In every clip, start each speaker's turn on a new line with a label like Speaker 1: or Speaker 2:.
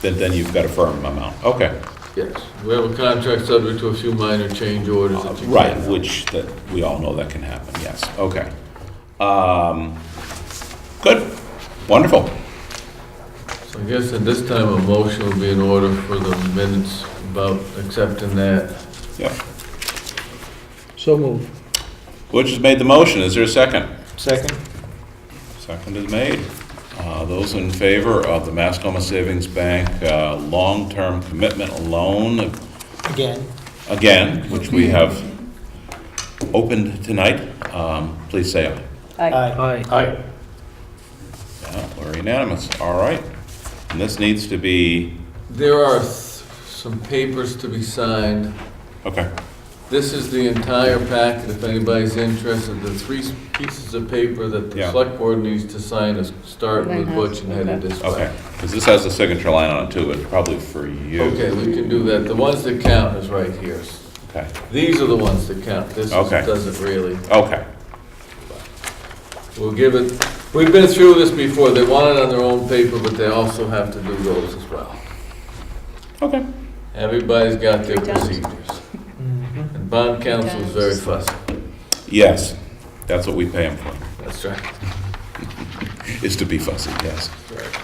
Speaker 1: Then, then you've got a firm amount, okay.
Speaker 2: Yes, we have a contract subject to a few minor change orders that you can...
Speaker 1: Uh, Right, which, that, we all know that can happen, yes, okay. Um, Good, wonderful.
Speaker 2: So I guess at this time, a motion will be in order for the minutes about accepting that.
Speaker 1: Yep.
Speaker 3: So moved.
Speaker 1: Butch has made the motion, is there a second?
Speaker 3: Second?
Speaker 1: Second is made. Uh, Those in favor of the Mascoma Savings Bank uh, long-term commitment loan,
Speaker 3: Again.
Speaker 1: again, which we have opened tonight, um, please say aye.
Speaker 3: Aye. Aye.
Speaker 1: Yeah, We're unanimous, all right. And this needs to be,
Speaker 2: There are s- some papers to be signed.
Speaker 1: okay,
Speaker 2: This is the entire packet, if anybody's interested. The three s- pieces of paper that the
Speaker 1: Yeah.
Speaker 2: select board needs to sign is starting with Butch and headed this way.
Speaker 1: okay. Because this has a signature line on it too, but probably for you.
Speaker 2: Okay, we can do that. The ones that count is right here.
Speaker 1: Okay,
Speaker 2: These are the ones that count. This is-
Speaker 1: Okay.
Speaker 2: doesn't really.
Speaker 1: okay,
Speaker 2: We'll give it, we've been through this before, they want it on their own paper, but they also have to do those as well.
Speaker 1: okay.
Speaker 2: Everybody's got their
Speaker 4: They don't.
Speaker 2: procedures. And bond counsel is very fussy,
Speaker 1: Yes, that's what we pay them for,
Speaker 2: that's right.
Speaker 1: is to be fussy, yes.
Speaker 2: Correct.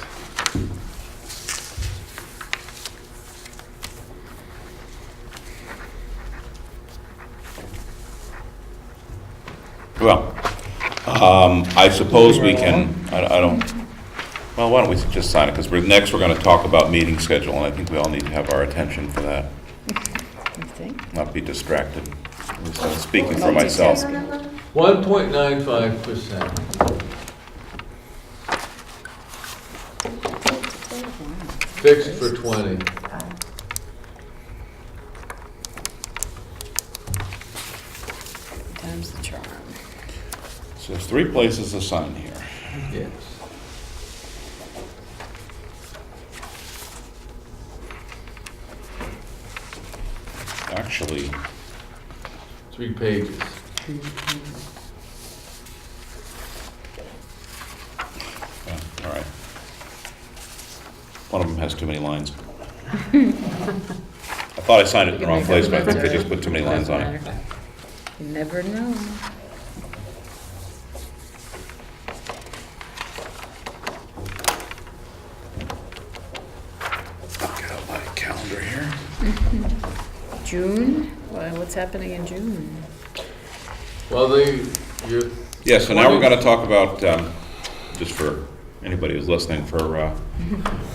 Speaker 1: Well, um, I suppose we can, I I don't, well, why don't we just sign it? Because next, we're going to talk about meeting schedule, and I think we all need to have our attention for that,
Speaker 4: You think?
Speaker 1: not be distracted. At least I'm Speaking for myself.
Speaker 2: One point nine five percent. Fixed for twenty.
Speaker 4: Time's the charm.
Speaker 1: So there's three places to sign here.
Speaker 2: Yes.
Speaker 1: Actually,
Speaker 2: Three pages.
Speaker 1: yeah, Oh, all right. One of them has too many lines. I thought I signed it in the wrong place, but I think they just put too many lines on it.
Speaker 4: You never know.
Speaker 1: Get out my calendar here.
Speaker 4: June? Well, what's happening in June?
Speaker 2: Well, they, you're,
Speaker 1: Yeah, so now we're going to talk about, um, just for anybody who's listening, for uh,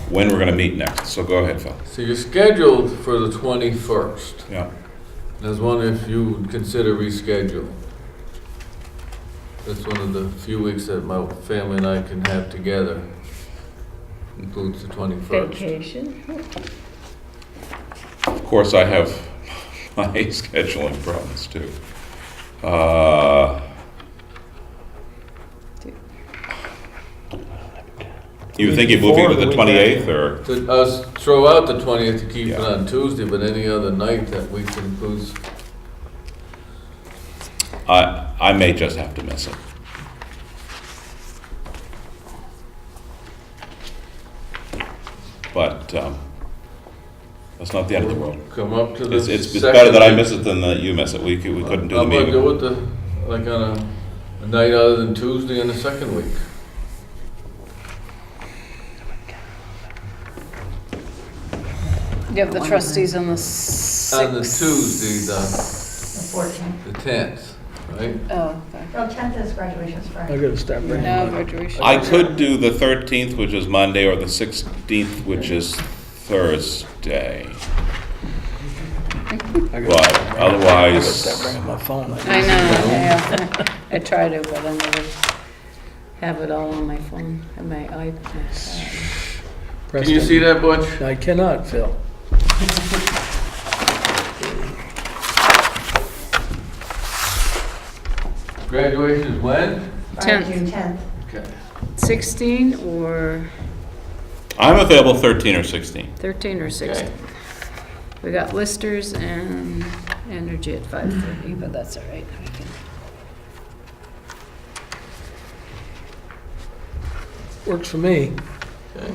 Speaker 1: when we're going to meet next. So go ahead, Phil.
Speaker 2: so you're scheduled for the twenty-first.
Speaker 1: Yeah.
Speaker 2: I was wondering if you would consider rescheduling. That's one of the few weeks that my family and I can have together, includes the 21st.
Speaker 4: Vacation?
Speaker 1: Of course, I have my scheduling problems too. Uh, You think you're moving to the 28th or?
Speaker 2: To us, throw out the 20th to keep it
Speaker 1: Yeah.
Speaker 2: on Tuesday, but any other night that week includes,
Speaker 1: I, I may just have to miss it. But um, that's not the end of the world.
Speaker 2: come up to the
Speaker 1: It's, it's it's
Speaker 2: second
Speaker 1: better that I
Speaker 2: week.
Speaker 1: miss it than that you miss it. We could- we couldn't do the
Speaker 2: I'm gonna
Speaker 1: meeting.
Speaker 2: go with the, like on a, a night other than Tuesday in the second week.
Speaker 4: You have the trustees on the sixth.
Speaker 2: On the Tuesday, the,
Speaker 5: The 14th.
Speaker 2: the 10th, right?
Speaker 4: Oh, okay.
Speaker 5: Well, 10th is graduation's Friday.
Speaker 3: I gotta stop right
Speaker 4: No,
Speaker 3: now.
Speaker 4: graduation.
Speaker 1: I could do the 13th, which is Monday, or the 16th, which is Thursday.
Speaker 3: I gotta-
Speaker 1: But
Speaker 3: I gotta
Speaker 1: otherwise,
Speaker 3: stop right on my phone.
Speaker 4: I know, yeah. I try to, but I never have it all on my phone, and my iPad.
Speaker 2: Can you see that, Butch?
Speaker 3: I cannot, Phil.
Speaker 2: Graduation is when?
Speaker 5: Friday,
Speaker 4: 10th.
Speaker 5: June 10th.
Speaker 2: Okay.
Speaker 4: Sixteen or
Speaker 1: I'm available 13 or 16.
Speaker 4: thirteen or sixteen? We got listers and energy at five thirty, but that's all right. We can-
Speaker 3: Works for me.
Speaker 2: Okay.